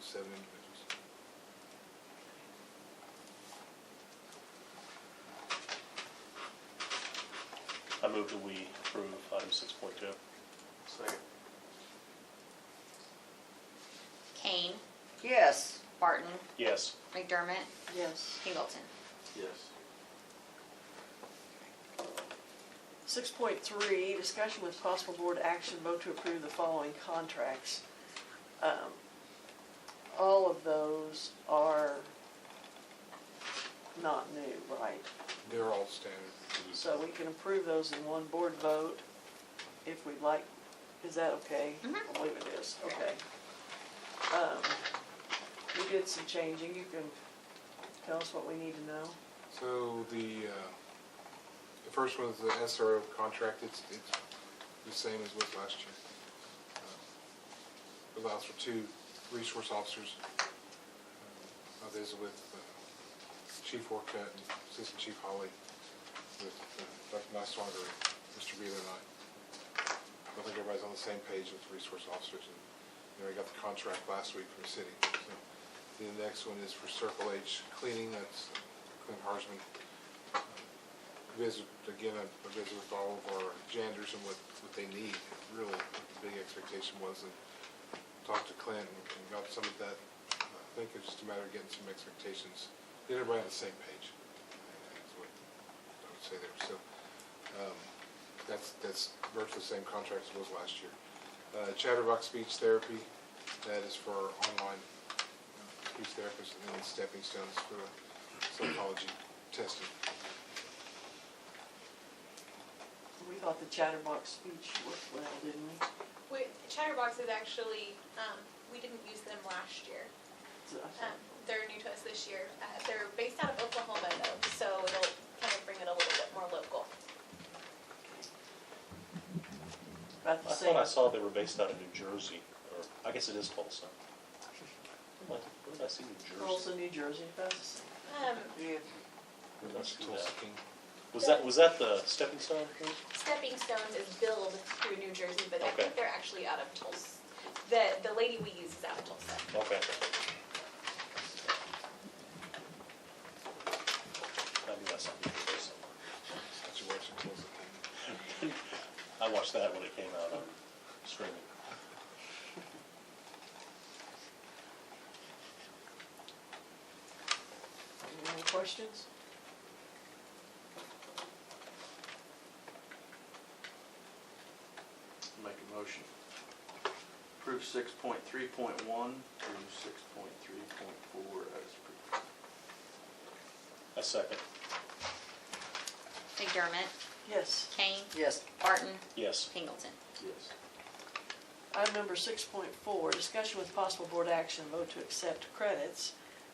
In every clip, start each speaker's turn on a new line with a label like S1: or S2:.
S1: seven individuals.
S2: I move that we approve item six point two.
S1: Second.
S3: Kane,
S4: Yes.
S3: Barton,
S2: Yes,
S3: McDermott,
S4: Yes.
S3: Pingleton.
S1: Yes.
S4: Six point three, discussion with possible board action, vote to approve the following contracts. Um, All of those are not new, right?
S1: They're all standard.
S4: So we can approve those in one board vote if we'd like. Is that okay?
S3: Mhm.
S4: I believe it is, okay. Um, We did some changing, you can tell us what we need to know.
S1: So the, uh, the first one is the SRO contract, it's, it's the same as with last year. Uh, Allows for two resource officers, uh, others with uh, Chief Orcutt and Assistant Chief Holly, with uh, Dr. Niswanger and Mr. Beal and I. I think everybody's on the same page with resource officers, and, you know, we got the contract last week from the city. So The next one is for Circle H cleaning, that's uh, Clint Harsman. Uh, Visit, again, I I visit with all of our janitors and what, what they need, really, what the big expectation was, and talked to Clint and and got some of that. I think it's just a matter of getting some expectations, get everybody on the same page. That's what I would say there, so, um, that's, that's virtually the same contract as was last year. Uh, Chatterbox Speech Therapy, that is for our online uh, speech therapists, and then Stepping Stones for psychology testing.
S4: We thought the chatterbox speech worked well, didn't we?
S5: We, Chatterbox is actually, um, we didn't use them last year.
S4: So I
S5: Um,
S4: thought-
S5: they're new to us this year. Uh, they're based out of Oklahoma though, so it'll kind of bring it a little bit more local.
S4: About
S2: I
S4: the
S2: thought I
S4: same,
S2: saw they were based out of New Jersey, or, I guess it is Tulsa. What, what did I see, New Jersey?
S4: Tulsa, New Jersey, about the same.
S5: Um,
S2: Let's do
S1: Tulsa
S2: that.
S1: King.
S2: Was that, was that the stepping stone? group?
S5: Stepping Stones is billed through New Jersey, but I
S2: Okay.
S5: think they're actually out of Tulsa. The, the lady we use is out of Tulsa.
S2: Okay. I knew I saw New Jersey somewhere.
S1: That's your wife's Tulsa King.
S2: I watched that when it came out on streaming.
S4: Any more questions?
S6: Make a motion. Approve six point three point one through six point three point four as per.
S2: A second,
S3: McDermott,
S4: Yes.
S3: Kane,
S4: Yes.
S3: Barton,
S2: yes,
S3: Pingleton.
S6: Yes.
S4: Item number six point four, discussion with possible board action, vote to accept credits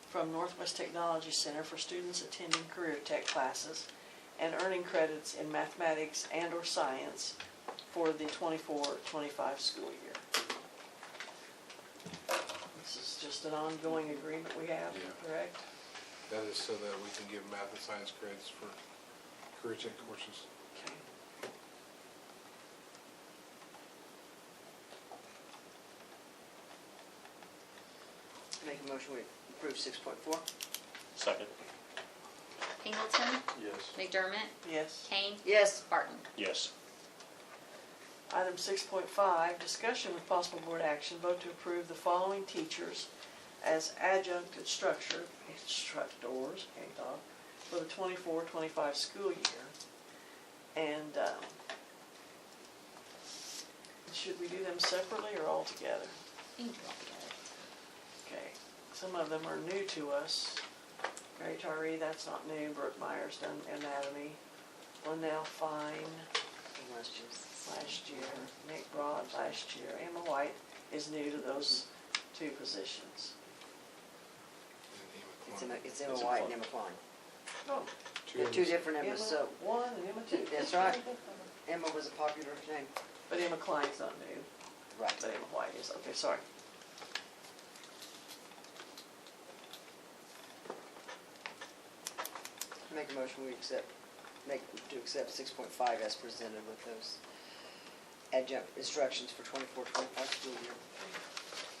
S4: from Northwest Technology Center for students attending career tech classes and earning credits in mathematics and or science for the 24-25 school year. This is just an ongoing agreement we have,
S1: Yeah.
S4: correct?
S1: That is so that we can give math and science credits for career tech courses.
S4: Okay.
S7: Make a motion, we approve six point four?
S2: second,
S3: Pingleton,
S6: Yes.
S3: McDermott,
S4: Yes.
S3: Kane,
S7: Yes.
S3: Barton.
S2: yes,
S4: Item 6.5, discussion with possible board action, vote to approve the following teachers as adjunct instructor, instructors, can't talk, for the 24-25 school year. And um, should we do them separately or all together?
S3: You can do all together.
S4: Okay, some of them are new to us. Mary Taree, that's not new, Brooke Myers done anatomy, Linnell Fine,
S7: Unless she's-
S4: last year, Nick Broad last year, Emma White is new to those two positions.
S1: And Emma Klein.
S7: It's Emma, it's Emma
S2: It's Emma
S7: White
S2: Klein.
S7: and Emma Klein.
S4: Oh,
S1: Two
S7: They're two
S1: Emmas.
S7: different
S4: Emma
S7: Emmas, so
S4: one and Emma two.
S7: That's right. Emma was a popular name.
S4: But Emma Klein's not new,
S7: Right.
S4: but Emma White is, okay, sorry.
S7: Make a motion, we accept, make, to accept six point five as presented with those adjunct instructions for 24-25 school year.